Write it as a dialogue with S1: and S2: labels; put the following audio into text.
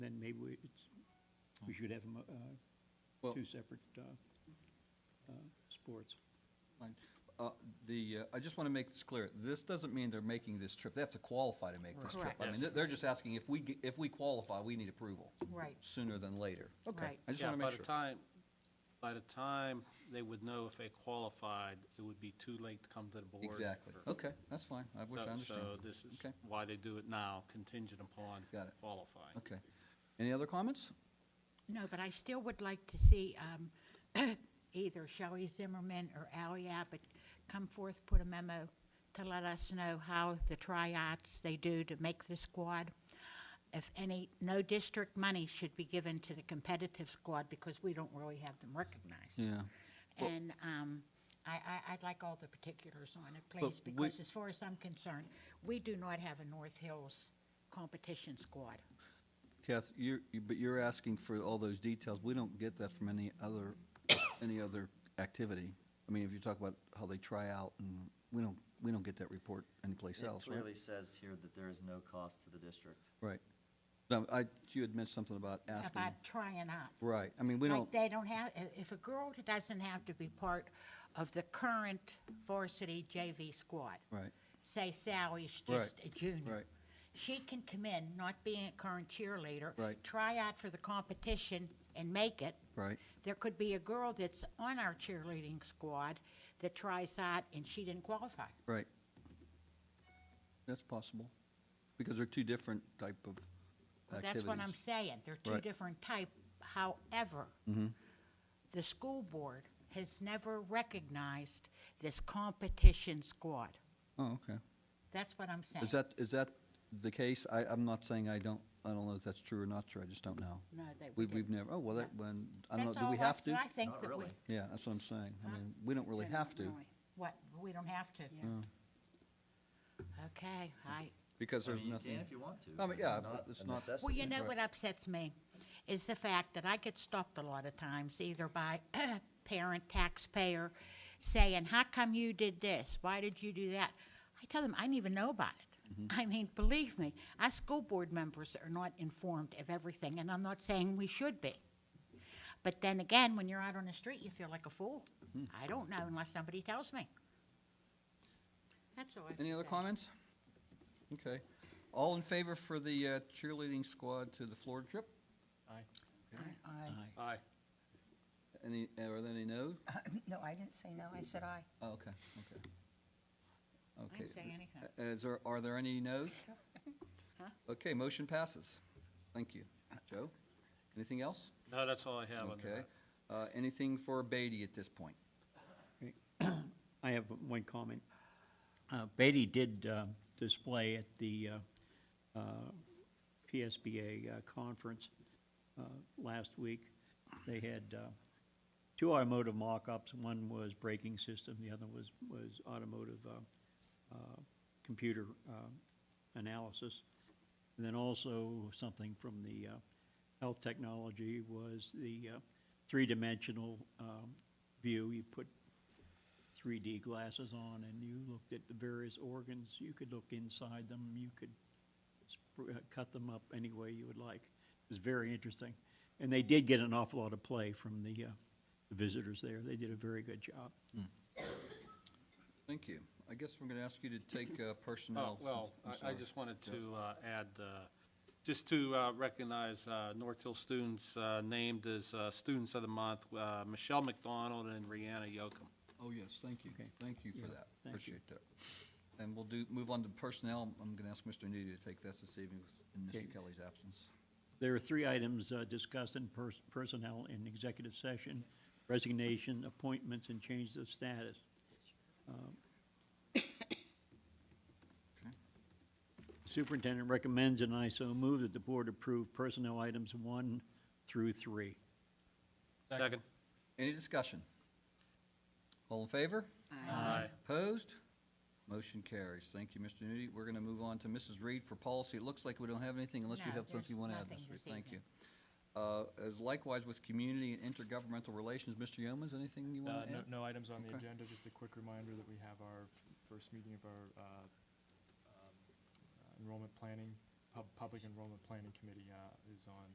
S1: maybe we, it's, we should have, 'em, uh,
S2: Well,
S1: two separate, uh, uh, sports.
S2: fine. Uh, The, uh, I just want to make this clear. This doesn't mean they're making this trip. They have to qualify to make this trip.
S3: Correct.
S2: I mean, they're- they're just asking if we, ge- if we qualify, we need approval
S3: Right,
S2: sooner than later.
S3: right.
S2: I just
S4: Yeah,
S2: want to
S4: by
S2: make
S4: the
S2: sure.
S4: time, by the time they would know if they qualified, it would be too late to come to the board. uh,
S2: Exactly. Okay, that's fine. I wish I
S4: So-
S2: understand.
S4: So this is
S2: Okay.
S4: why they do it now, contingent upon
S2: Got it.
S4: qualifying.
S2: Okay. Any other comments?
S3: No, but I still would like to see um, either Shelley Zimmerman or Ally Abbott come forth, put a memo to let us know how the tryouts they do to make the squad. If any, no district money should be given to the competitive squad because we don't really have them recognized.
S2: Yeah.
S3: And um, I, I, I'd like all the particulars on it, please,
S2: we-
S3: because as far as I'm concerned, we do not have a North Hills competition squad.
S2: Kath, you're, you- but you're asking for all those details. We don't get that from any other, any other activity. I mean, if you talk about how they try out, and we don't, we don't get that report anyplace
S5: It
S2: else, right?
S5: clearly says here that there is no cost to the district.
S2: Right. No, I, you had mentioned something about asking.
S3: About trying out.
S2: Right, I mean, we don't,
S3: Like, they don't have, i- if a girl doesn't have to be part of the current varsity JV squad,
S2: right,
S3: say Sally's
S2: Right,
S3: just a junior.
S2: right.
S3: She can come in, not being a current cheerleader.
S2: Right.
S3: Try out for the competition and make it.
S2: right,
S3: There could be a girl that's on our cheerleading squad that tries out and she didn't qualify.
S2: right. That's possible, because they're two different type of
S3: Well,
S2: activities.
S3: That's what I'm saying. They're two
S2: Right. Mm-hmm.
S3: different type. However, the school board has never recognized this competition squad.
S2: Oh, okay.
S3: That's what I'm saying.
S2: Is that, is that the case? I, I'm not saying I don't, I don't know if that's true or not true, I just don't know.
S3: No, that we
S2: We've, we've
S3: didn't.
S2: never, oh, well, that, when, I don't know,
S3: That's
S2: do
S3: all
S2: we have
S3: that's-
S2: to?
S3: I think
S5: Not
S3: that we.
S5: really.
S2: Yeah, that's what I'm saying. I
S3: Huh?
S2: mean, we don't really
S3: so
S2: have to,
S3: really. What, we don't have to? Okay, I,
S2: because
S5: I
S2: there's
S5: mean, you can
S2: nothing.
S5: if you want to.
S2: I mean,
S5: but
S2: yeah, but
S5: it's not
S2: it's
S5: a
S2: not-
S5: necessity.
S3: well, you know
S2: Right.
S3: what upsets me is the fact that I get stopped a lot of times, either by parent, taxpayer, saying, how come you did this? Why did you do that? I tell them, I didn't even know about it.
S2: Mm-hmm.
S3: I mean, believe me, us school board members are not informed of everything, and I'm not saying we should be. But then again, when you're out on the street, you feel like a fool.
S2: Mm-hmm.
S3: I don't know unless somebody tells me. That's all I have to
S2: Any other
S3: say.
S2: comments? Okay. All in favor for the uh, cheerleading squad to the Florida trip?
S4: Aye.
S6: Aye.
S4: Aye.
S2: Any, are there any no?
S6: No, I didn't say no, I said aye.
S2: Oh, okay, okay.
S3: I
S2: Okay.
S3: didn't say anything.
S2: Uh, Is there, are there any no's? Okay, motion passes. Thank you. Joe? Anything else?
S4: No, that's all I have on
S2: Okay.
S4: that.
S2: Uh, Anything for Beatty at this point?
S1: I have one comment. Uh, Beatty did uh, display at the uh, uh, PSBA uh, conference uh, last week. They had uh, two automotive mock-ups. One was braking system, the other was, was automotive uh, uh, computer uh, analysis. And then also something from the uh, health technology was the uh, three-dimensional um, view. You put 3D glasses on and you looked at the various organs, you could look inside them, you could sp- uh, cut them up any way you would like. It was very interesting. And they did get an awful lot of play from the uh, visitors there. They did a very good job.
S2: Thank you. I guess we're going to ask you to take uh,
S4: Oh,
S2: personnel.
S4: well,
S2: since- I'm
S4: I, I
S2: sorry.
S4: just wanted to uh, add, uh, just to uh, recognize uh, North Hill students uh, named as uh, Students of the Month, uh, Michelle McDonald and Rihanna Yocum.
S2: Oh, yes, thank you. Thank you for that.
S1: thank you.
S2: Appreciate that. And we'll do, move on to personnel. I'm going to ask Mr. Needy to take this this evening in
S1: Okay.
S2: Mr. Kelly's absence.
S1: There are three items uh, discussed in pers- personnel in executive session, resignation, appointments, and changes of status. Um,
S2: Okay.
S1: Superintendent recommends, and I so move, that the board approve personnel items one through three.
S4: Second.
S2: Any discussion? All in favor?
S4: Aye.
S2: Opposed? Motion carries. Thank you, Mr. Nudi. We're going to move on to Mrs. Reed for policy. It looks like we don't have anything unless you
S3: No,
S2: have something you
S3: there's
S2: want to add,
S3: nothing
S2: Mrs. Reed.
S3: this
S2: Thank you.
S3: evening.
S2: Uh, As likewise with community and intergovernmental relations, Mr. Yeomans, anything you
S7: Uh,
S2: want to
S7: No
S2: add?
S7: no items on the
S2: Okay.
S7: agenda, just a quick reminder that we have our first meeting of our uh, um, uh, enrollment planning, pub- Public Enrollment Planning Committee uh, is on